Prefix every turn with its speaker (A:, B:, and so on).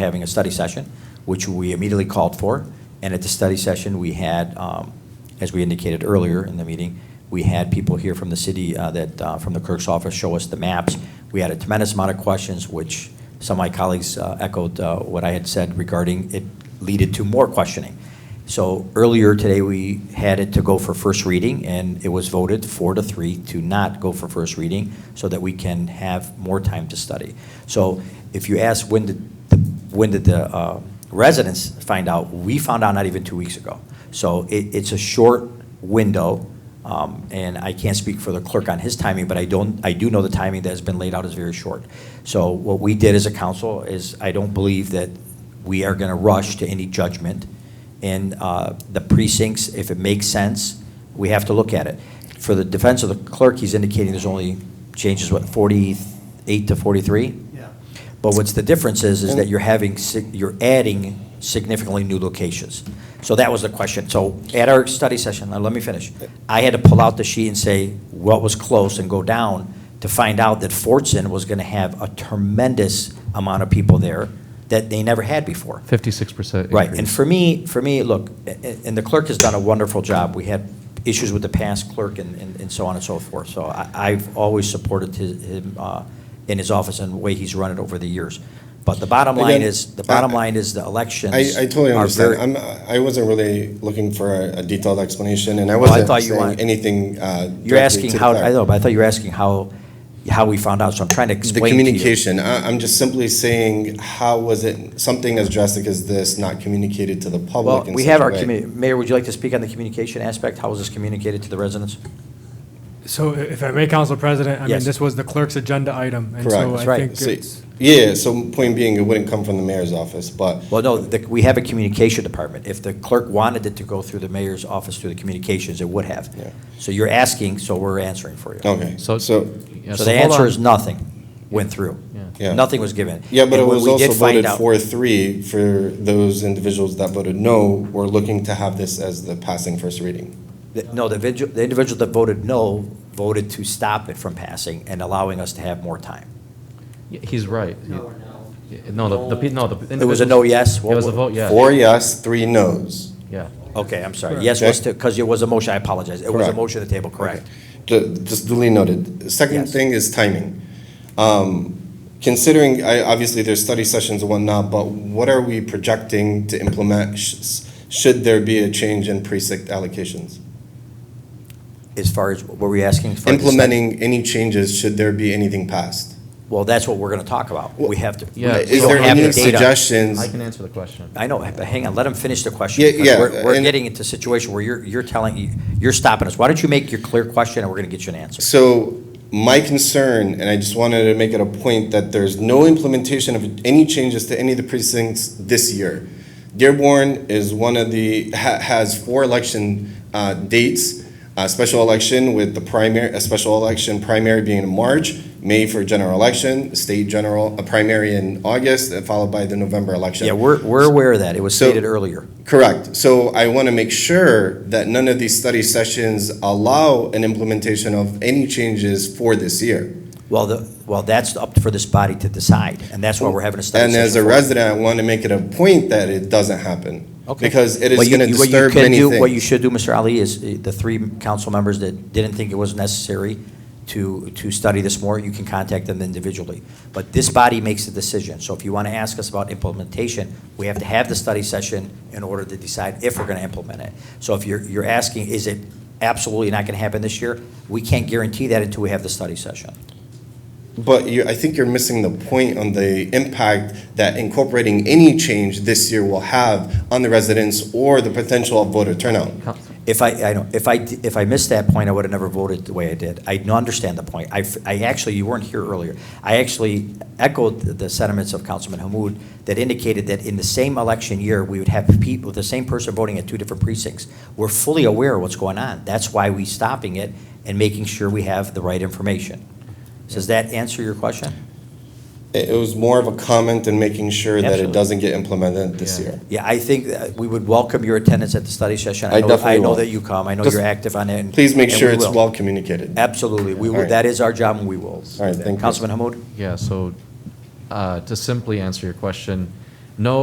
A: having a study session, which we immediately called for. And at the study session, we had, um, as we indicated earlier in the meeting, we had people here from the city uh, that, uh, from the clerk's office, show us the maps. We had a tremendous amount of questions, which some of my colleagues uh, echoed uh, what I had said regarding it leaded to more questioning. So earlier today, we had it to go for first reading, and it was voted four to three to not go for first reading so that we can have more time to study. So if you ask when did, the- when did the uh, residents find out, we found out not even two weeks ago. So it, it's a short window, um, and I can't speak for the clerk on his timing, but I don't, I do know the timing that has been laid out is very short. So what we did as a council is, I don't believe that we are going to rush to any judgment. And uh, the precincts, if it makes sense, we have to look at it. For the defense of the clerk, he's indicating there's only changes, what, 48 to 43?
B: Yeah.
A: But what's the difference is, is that you're having, sig- you're adding significantly new locations. So that was the question. So at our study session, now let me finish. I had to pull out the sheet and say what was close and go down to find out that Fortson was going to have a tremendous amount of people there that they never had before.
C: Fifty-six percent.
A: Right, and for me, for me, look, a- a- and the clerk has done a wonderful job. We had issues with the past clerk and, and and so on and so forth. So I, I've always supported his, him, uh, in his office and the way he's run it over the years. But the bottom line
D: Again,
A: is, the bottom
D: I-
A: line is the elections.
D: I, I totally
A: are
D: understand.
A: very-
D: I'm, I wasn't really looking for a a detailed explanation, and I
A: Well, I
D: wasn't
A: thought you
D: saying
A: wanted-
D: anything uh,
A: You're
D: directly
A: asking
D: to the
A: how, I
D: clerk.
A: know, but I thought you were asking how, how we found out, so I'm trying to
D: The
A: explain to you.
D: communication, I, I'm just simply saying, how was it, something as drastic as this not communicated to the
A: Well,
D: public in
A: we
D: such
A: have
D: a
A: our,
D: way?
A: commu- Mayor, would you like to speak on the communication aspect? How was this communicated to the residents?
B: So i- if I may, Council President, I mean,
A: Yes.
B: this was the clerk's agenda item. and
D: Correct.
B: so
D: That's
B: I
A: right.
B: think
D: So-
B: it's-
D: Yeah, so point being, it wouldn't come from the mayor's office, but
A: Well, no, the- we have a communication department. If the clerk wanted it to go through the mayor's office, through the communications, it would have.
D: Yeah. Oh.
A: So you're asking, so we're answering for you.
D: Okay,
C: So-
D: so,
C: Yeah,
A: So the
C: hold
A: answer
C: on.
A: is nothing went through.
D: Yeah.
A: Nothing was given.
D: yeah, but
A: And
D: it
A: when
D: was
A: we did
D: also
A: find
D: voted
A: out-
D: four, three for those individuals that voted no, were looking to have this as the passing first reading.
A: that- No, the individual, the individual that voted no voted to stop it from passing and allowing us to have more time.
C: Yeah, He's right. Yeah, No, the, the, pe- no, the.
A: It was a no,
C: individuals-
A: yes?
C: It was a vote, yeah.
D: Four yes, three no's.
C: Yeah.
A: Okay, I'm sorry. Yes was to, because it was a motion, I apologize. It was a
D: Correct.
A: motion to table, correct?
D: Ju- Just duly noted. The Second
A: Yes.
D: thing is timing. Um, Considering, I, obviously, there's study sessions and whatnot, but what are we projecting to implement sh- should there be a change in precinct allocations?
A: As far as, were we asking for?
D: Implementing any changes, should there be anything passed?
A: Well, that's what we're going to talk about. We have to.
C: Yeah.
A: we
D: Is
A: don't
D: there
A: have the
D: any
A: data.
D: suggestions?
C: I can answer the question.
A: I know, but hang on, let him finish the question.
D: Yeah,
A: because
D: yeah,
A: We're, we're
D: and-
A: getting into a situation where you're, you're telling, you're stopping us. Why don't you make your clear question and we're gonna get you an answer?
D: So my concern, and I just wanted to make it a point, that there's no implementation of any changes to any of the precincts this year. Dearborn is one of the, ha- has four election uh, dates, a special election with the primary, a special election primary being in March, May for general election, state general, a primary in August, uh, followed by the November election.
A: Yeah, we're, we're aware of that. It was
D: So-
A: stated earlier.
D: Correct. So I want to make sure that none of these study sessions allow an implementation of any changes for this year.
A: Well, the, well, that's up for this body to decide, and that's why we're having a study
D: And
A: session.
D: as a
A: for it.
D: resident, I want to make it a point that it doesn't happen.
A: Okay.
D: Because it is
A: What you-
D: going to
A: what you
D: disturb
A: can
D: many
A: do-
D: things.
A: What you should do, Mr. Ali, is uh, the three council members that didn't think it was necessary to, to study this more, you can contact them individually. But this body makes the decision, so if you want to ask us about implementation, we have to have the study session in order to decide if we're going to implement it. So if you're, you're asking, is it absolutely not going to happen this year? We can't guarantee that until we have the study session.
D: But you, I think you're missing the point on the impact that incorporating any change this year will have on the residents or the potential of voter turnout.
C: Council-
A: If I, I know, if I, if I missed that point, I would have never voted the way I did. I no- understand the point. I, f- I actually, you weren't here earlier. I actually echoed the sentiments of Councilman Hamud that indicated that in the same election year, we would have people, the same person voting at two different precincts. We're fully aware of what's going on. That's why we stopping it and making sure we have the right information. Does that answer your question?
D: It, it was more of a comment and making sure that it
A: Absolutely.
D: doesn't get implemented this
C: Yeah.
D: year.
A: Yeah, I think that we would welcome your attendance at the study session.
D: I
A: know-
D: definitely
A: I know
D: will.
A: that you come. I know
D: Just
A: you're active on it. and-
D: Please make
A: and
D: sure
A: we
D: it's
A: will.
D: well communicated.
A: Absolutely, we
D: All
A: will,
D: right.
A: that is our job, and we will.
D: All right, thank you.
A: Councilman Hamud?
C: Yeah, so, uh, to simply answer your question,